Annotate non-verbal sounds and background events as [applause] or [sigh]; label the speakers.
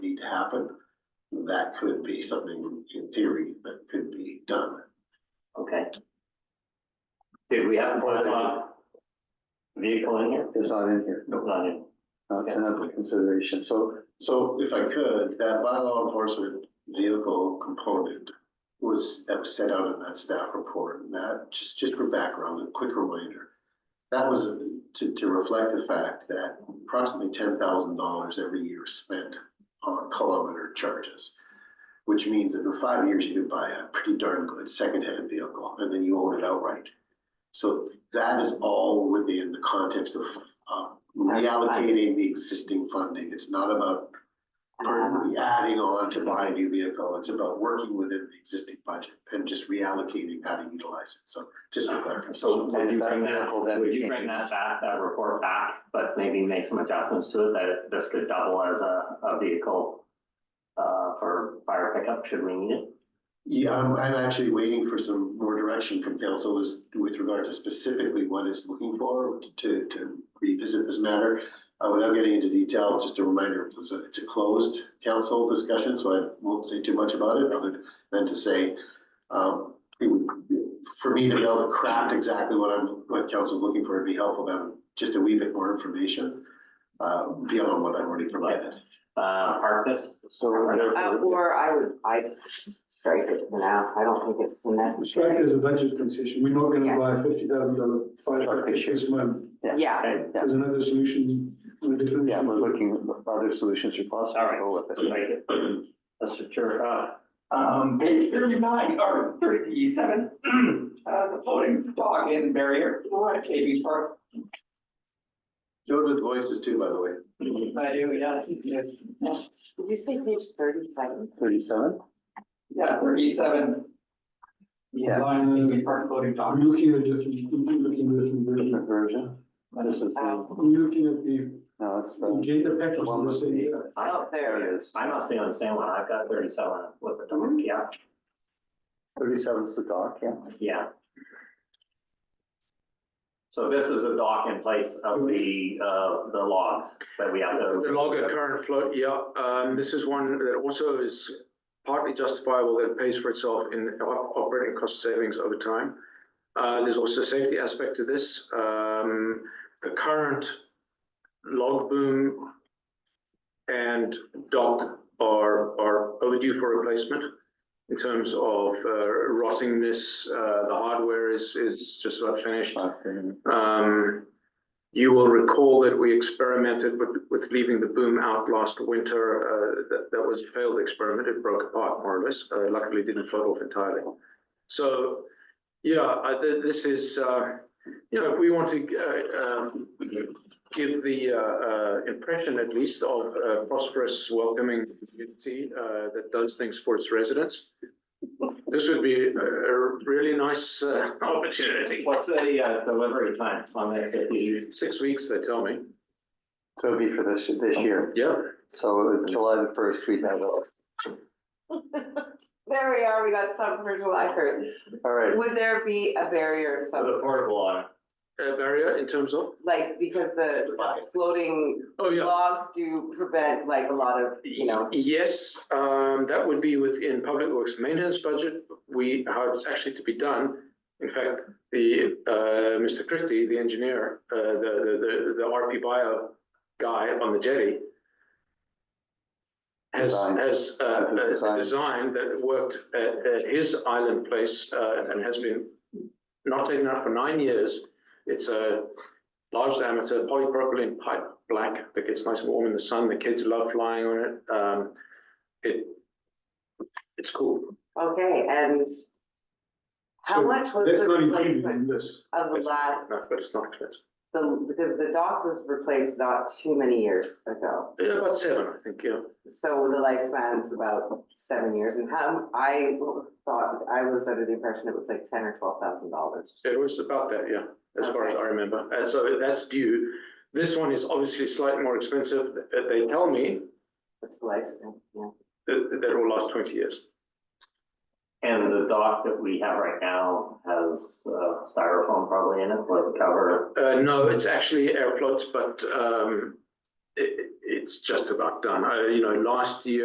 Speaker 1: to happen, that could be something in theory that could be done.
Speaker 2: Okay,
Speaker 3: Did we have
Speaker 4: Well, uh, Vehicle in here?
Speaker 5: It's not in here.
Speaker 4: No, not in.
Speaker 5: No, it's another consideration. So
Speaker 1: So if I could, that bylaw enforcement vehicle component was, that was set out in that staff report, and that, just, just for background, a quick reminder. That was to, to reflect the fact that approximately ten thousand dollars every year is spent on kilometer charges. Which means that in five years, you can buy a pretty darn good secondhand vehicle, and then you own it outright. So that is all within the context of, uh, reallocating the existing funding. It's not about permanently adding on to buy a new vehicle. It's about working within the existing budget and just reallocating how to utilize it. So just to clarify.
Speaker 4: So would you bring that,
Speaker 5: Well, that
Speaker 4: would you
Speaker 5: change.
Speaker 4: bring that back, that report back, but maybe make some adjustments to it, that it- this could double as a, a vehicle uh, for fire pickup, should we need it?
Speaker 1: Yeah, I'm, I'm actually waiting for some more direction from council as with regard to specifically what it's looking for to, to revisit this matter. Uh, without getting into detail, just a reminder, it was a- it's a closed council discussion, so I won't say too much about it, other than to say, um, it would, for me to be able to craft exactly what I'm, what council's looking for, it'd be helpful to have just a wee bit more information, uh, beyond what I've already provided.
Speaker 4: Uh, park this,
Speaker 5: so
Speaker 2: Uh,
Speaker 5: therefore,
Speaker 2: or I would, I strike it for now, I don't think it's
Speaker 6: Strike
Speaker 2: necessary.
Speaker 6: it as a budget concession. We're not
Speaker 2: Yeah.
Speaker 6: gonna buy a fifty thousand dollar fire
Speaker 5: Truck
Speaker 6: truck
Speaker 5: this year.
Speaker 6: this month.
Speaker 2: Yeah,
Speaker 4: okay,
Speaker 6: There's another solution, a different.
Speaker 5: yeah, we're looking at other solutions are possible.
Speaker 4: All right.
Speaker 5: Go with
Speaker 4: let's
Speaker 5: it.
Speaker 4: make it. Mr. Chair, uh,
Speaker 7: Um, page thirty-nine, or thirty-seven, uh, the floating dog in barrier, at KB's Park.
Speaker 1: Joe did voices too, by the way.
Speaker 7: I do, yeah, it's- it's-
Speaker 2: did you say page thirty-seven?
Speaker 5: Thirty-seven?
Speaker 7: yeah, thirty-seven. Yes,
Speaker 6: Line,
Speaker 7: KB's Park floating
Speaker 6: We're
Speaker 7: dog.
Speaker 6: looking at different, we're looking at different
Speaker 5: Different
Speaker 6: version.
Speaker 5: version? This is, the-
Speaker 2: Oh, [laughs]
Speaker 6: I'm looking at the
Speaker 5: no, it's the,
Speaker 6: agenda package.
Speaker 5: One
Speaker 6: and
Speaker 5: with
Speaker 6: say,
Speaker 5: the-
Speaker 6: yeah.
Speaker 2: oh, there.
Speaker 5: there it is.
Speaker 4: I must be on the same one, I've got thirty-seven with a dog, yeah,
Speaker 5: Thirty-seven's the dock, yeah.
Speaker 4: yeah. So this is a dock in place of the, uh, the logs that we have to.
Speaker 8: The log at current float, yeah, um, this is one that also is partly justifiable that it pays for itself in op- operating cost savings over time. Uh, there's also a safety aspect to this, um, the current log boom and dock are, are overdue for replacement in terms of, uh, rottingness, uh, the hardware is, is just about finished.
Speaker 5: Okay.
Speaker 8: Um, you will recall that we experimented with, with leaving the boom out last winter. Uh, that, that was a failed experiment. It broke apart more or less. Uh, luckily it didn't float off entirely. So, yeah, I, thi- this is, uh, you know, if we want to, uh, um, give the, uh, uh, impression at least of a prosperous, welcoming community, uh, that does things for its residents. This would be a, a really nice, uh, [laughs] opportunity.
Speaker 4: What's the uh, delivery time on that fifty?
Speaker 8: Six weeks, they tell me.
Speaker 5: So it'd be for this, this year.
Speaker 8: Yeah.
Speaker 5: So July the first, we'd have, all
Speaker 2: There we are, we got something for July first.
Speaker 5: right.
Speaker 2: Would there be a barrier of some
Speaker 4: The
Speaker 2: sort?
Speaker 4: portable on
Speaker 8: Uh, barrier in terms of?
Speaker 2: Like, because the floating
Speaker 8: Oh, yeah.
Speaker 2: logs do prevent like a lot of, you know,
Speaker 8: Yes, um, that would be within public works maintenance budget. We, how it's actually to be done. In fact, the, uh, Mr. Christie, the engineer, uh, the, the, the, the RP bio guy on the jetty has,
Speaker 5: Design.
Speaker 8: has, uh,
Speaker 5: Has a
Speaker 8: uh,
Speaker 5: design.
Speaker 8: a design that worked at, at his island place, uh, and has been not taken out for nine years. It's a large diameter polypropylene pipe, black, that gets nice and warm in the sun. The kids love flying on it. Um, it, it's cool.
Speaker 2: okay, and how
Speaker 6: So
Speaker 2: much was
Speaker 6: That's
Speaker 2: the
Speaker 6: not included in
Speaker 2: replacement
Speaker 6: this.
Speaker 2: of the
Speaker 8: It's-
Speaker 2: last,
Speaker 8: No, but it's not expensive.
Speaker 2: the, because the dock was replaced not too many years ago?
Speaker 8: Yeah, about seven, I think, yeah.
Speaker 2: So the lifespan is about seven years and how, I thought, I was under the impression it was like ten or twelve thousand dollars.
Speaker 8: It was about that, yeah, as far as
Speaker 2: Okay.
Speaker 8: I remember. And so that's due. This one is obviously slightly more expensive. Uh, They tell me
Speaker 2: That's the lifespan, yeah.
Speaker 8: that, that it will last twenty years.
Speaker 4: And the dock that we have right now has uh, styrofoam probably in it with a cover.
Speaker 8: Uh, no, it's actually air floats, but, um, it, it's just about done. Uh, you know, last year